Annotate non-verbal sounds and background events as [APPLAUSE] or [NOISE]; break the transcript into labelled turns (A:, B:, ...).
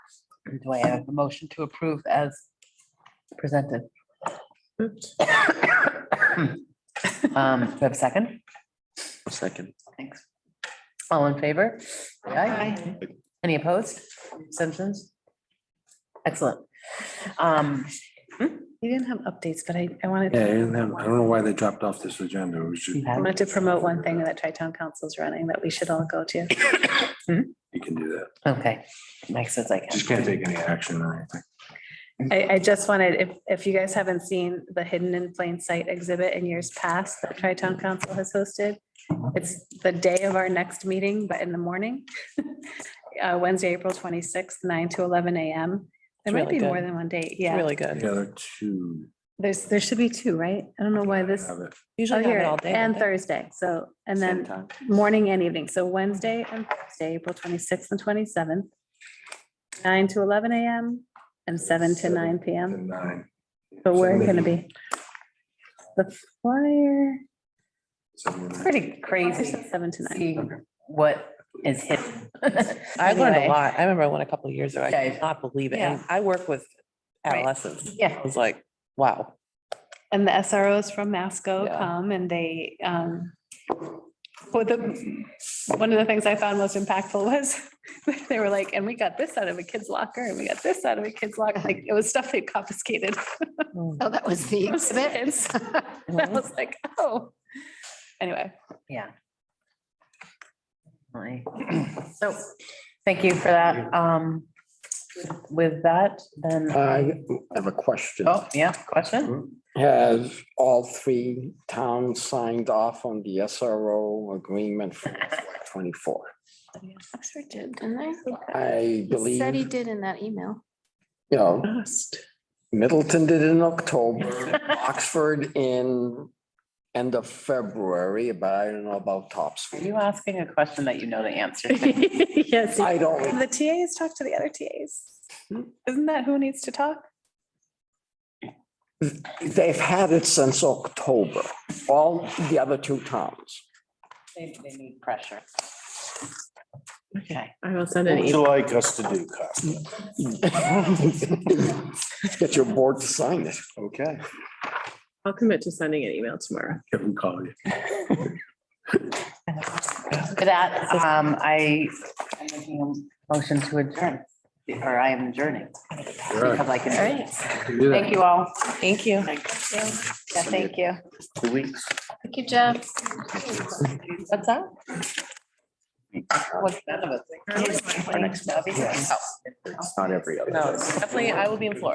A: Do I have a motion to approve as presented?
B: Oops.
A: Um, do I have a second?
C: Second.
A: Thanks. All in favor? Aye. Any opposed? Abstentions? Excellent. Um,
B: You didn't have updates, but I, I wanted.
D: Yeah, I didn't have- I don't know why they dropped off this agenda. We should,
A: you
B: I
A: have-
B: wanted to promote one thing that Tri-Town Council's running that we should all go to.
D: you can do that.
A: Okay, Mike says I
D: Just
A: can.
D: can't take any action or anything.
B: I, I just wanted, if, if you guys haven't seen the Hidden in Plain Sight exhibit in years past that Tri-Town Council has hosted, it's the day of our next meeting, but in the morning. [LAUGHS] Uh, Wednesday, April twenty-sixth, nine to eleven AM. There
E: It's
B: might
E: really
B: be more
E: good.
B: than one date,
E: It's
B: yeah.
E: Really good.
D: The other two
B: There's, there should be two, right? I don't know why this.
D: have it.
B: Oh,
E: Usually have
B: here,
E: it all day.
B: and
E: don't they?
B: Thursday, so, and
C: Same
B: then
C: time.
B: morning and evening, so Wednesday and Thursday, April twenty-sixth and twenty-seventh. Nine to eleven AM and seven to
D: Seven
B: nine PM.
D: The nine.
B: But where
D: Seven
B: it gonna
D: to-
B: be? The flyer,
D: seven to nine.
A: Pretty crazy.
B: seven to nine.
A: See what is hidden. [LAUGHS]
E: I learned a
A: Anyway.
E: lot. I remember one a couple of years ago. I
A: Okay.
E: could not believe it.
A: Yeah.
E: And I work with
A: Right.
E: adolescents.
A: Yeah.
E: I was like, wow.
B: And the SROs from Masco
E: Yeah.
B: come and they, um, well, the, one of the things I found most impactful was [LAUGHS] they were like, and we got this out of a kid's locker and we got this out of a kid's locker. Like it was stuff they confiscated.
A: Oh, that was the
B: It was
E: [LAUGHS]
B: kids. [LAUGHS] I
E: Mhm.
B: was like, oh. Anyway,
A: Yeah. [CLEARS THROAT] Right. So, thank you Uh, for that. Um, with that, then,
F: I have a question.
A: oh, yeah, question?
F: Has all three towns signed off on the SRO agreement for twenty-four?
G: Oxford did, didn't they?
F: I
G: He said he
F: believe,
G: did in that
E: [LAUGHS]
G: email.
F: you know, Middleton did in October,
G: [LAUGHS]
F: Oxford in end of February, but I don't know about
A: Are
F: Topsfield.
A: you asking a question that you know the answer [LAUGHS] to?
B: yes. [LAUGHS]
F: I don't,
B: The TAs talk to the other TAs. Isn't that who needs to talk?
F: they've had it since October, all the other two towns. [LAUGHS]
A: They they need pressure. Okay,
E: I will send
B: Oh,
E: e-,
H: Would you like us to do, Costa?
F: Get your board to sign it.
C: [LAUGHS]
H: Okay.
E: I'll commit to sending an email tomorrow.
D: Kevin called you.
A: with that, um, I, I'm making a motion to adjourn, or I am adjourning. Because I can, thank you all.
E: Thank you.
B: Yeah, thank you.
C: Two weeks.
G: Thank you, Jeff.
A: What's that? What's that about?
C: Our next-
A: Obviously.
C: It's not every other.
E: No, definitely, I will be in Florida.